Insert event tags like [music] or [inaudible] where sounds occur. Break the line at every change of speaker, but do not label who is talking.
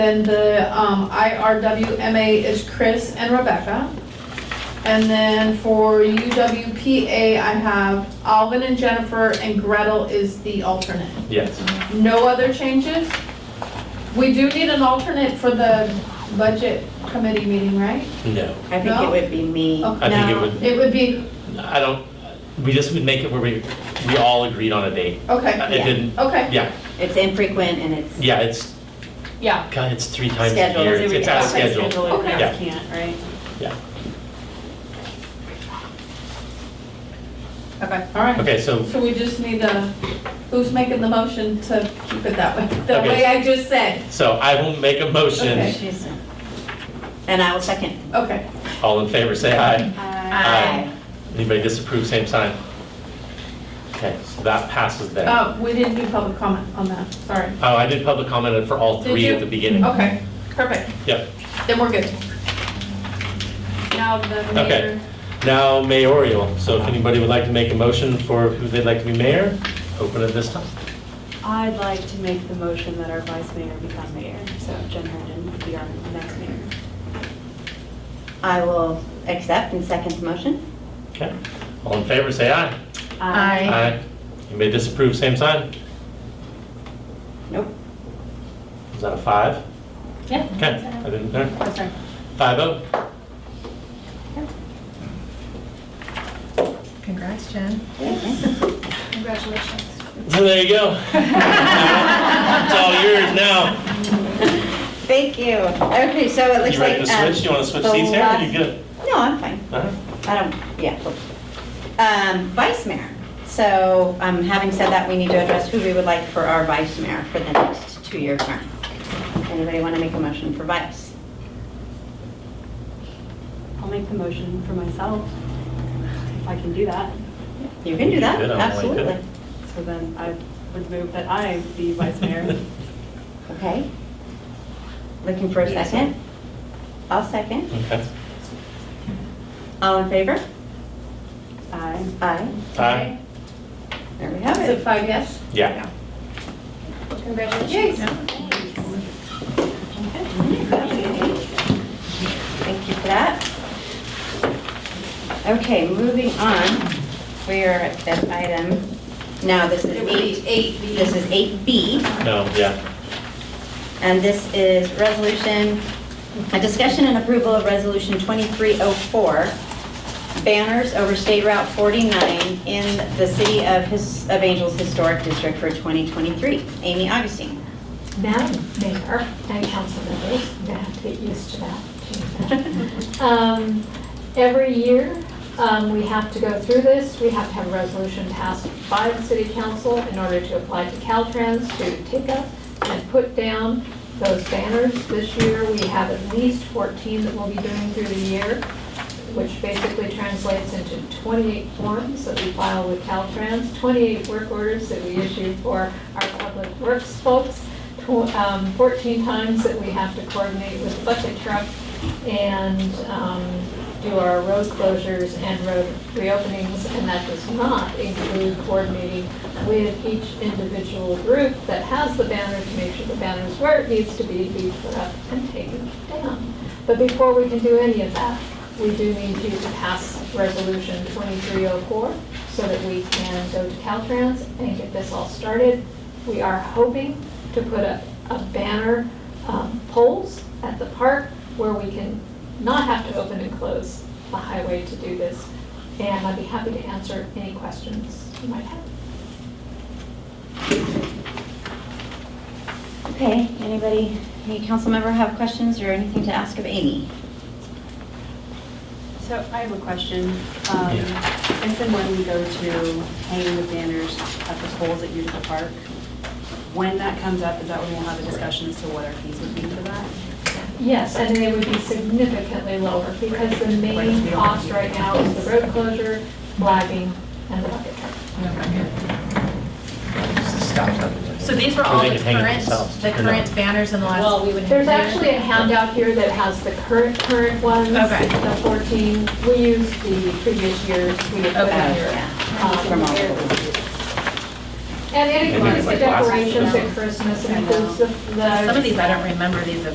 Then the um, IRWMA is Chris and Rebecca. And then for UWPA, I have Alvin and Jennifer, and Gretel is the alternate.
Yes.
No other changes? We do need an alternate for the budget committee meeting, right?
No.
I think it would be me.
Okay.
I think it
No.
would,
It would be,
I don't, we just would make it where we, we all agreed on a date. Uh,
okay,
It didn't,
okay,
yeah,
It's infrequent and it's
yeah, it's,
yeah.
God, it's three times a
scheduled.
year. It's out of schedule.
Scheduled,
Okay.
Yeah.
can't, right?
Okay. All right.
Okay, so,
So we just need a, who's making the motion to keep it that way? The
Okay.
way I just said.
so I will make a motion.
Okay.
She's- And I will second.
Okay.
All in favor, say aye.
Aye.
Anybody disapprove, same sign. Okay, so that passes then. Oh,
Uh, we didn't do public comment on that, sorry.
I did public comment for all
Did
three
you? Oh.
at the beginning.
Okay, perfect.
Yep.
Then we're good. Now the
Okay.
mayor.
Now mayoral, so if anybody would like to make a motion for who they'd like to be mayor, open it this time.
I'd like to make the motion that our vice mayor become mayor, so Jen Herndon would be our next mayor.
I will accept and second the motion.
Okay, all in favor, say aye.
Um, Aye.
Aye. You may disapprove, same sign.
Nope.
Is that a five?
Yeah.
Okay, I didn't, know.
That's right.
five oh.
Congrats, Jen. Congratulations.
So there you go. It's all yours now.
[laughs] Thank you. Okay, so it looks
You
like.
ready to
um,
switch? You want to switch
the
seats here? or
last-
You good?
No, I'm fine.
All right.
I don't, yeah. Um, Vice mayor. So um, having said that, we need to address who we would like for our vice mayor for the next two-year term. Anybody want to make a motion for vice?
I'll make the motion for myself, if I can do that.
You can do that,
You could, I don't like it.
absolutely.
So then I would move that I be vice mayor.
Okay. Looking for a second? I'll second.
[laughs] Okay.
All in favor?
Aye.
Aye.
Aye.
There we have
Is it
it.
five yes?
Yeah.
Yes.
Thank you for that. Okay, moving on. We are at that item. Now, this is
It would be
eight,
eight B.
this is 8B.
No, yeah.
And this is resolution, a discussion and approval of resolution 2304, banners over State Route 49 in the city of His- of Angels Historic District for 2023. Amy Augustine.
Madam Mayor and council members, I'm gonna have to get used to that, change that. Um, Every year, um, we have to go through this. We have to have a resolution passed by the city council in order to apply to Caltrans to take up and put down those banners. This year, we have at least 14 that we'll be doing through the year, which basically translates into 28 forms that we file with Caltrans, 28 work orders that we issue for our public works folks, tw- um, 14 times that we have to coordinate with the bucket truck and um, do our road closures and road reopenings, and that does not include coordinating with each individual group that has the banner to make sure the banner's where it needs to be, be put up and taken down. But before we can do any of that, we do need you to pass Resolution 2304 so that we can go to Caltrans and get this all started. We are hoping to put up a banner um, poles at the park where we can not have to open and close the highway to do this. And I'd be happy to answer any questions you might have.
Okay, anybody, any council member have questions or anything to ask of Amy?
So I have a question. Um, If and when we go to hanging the banners at the poles at Utica Park, when that comes up, is that when we'll have a discussion as to what our fees would be for that?
Yes, and they would be significantly lower because the main cost right now is the road closure, flagging, and the bucket truck.
So these were
Or
all
they
the
could hang it
current,
themselves,
the
you know.
current banners in the last.
Well, we
would.
There's actually a handout here that has the current, current ones.
Okay.
The 14, we used the previous years, we had put out
Okay.
here.
From all of
um,
them.
And it
Maybe
includes
like
the
glasses or
decorations
something.
at Christmas, it includes the. the-
Some of these, I don't remember these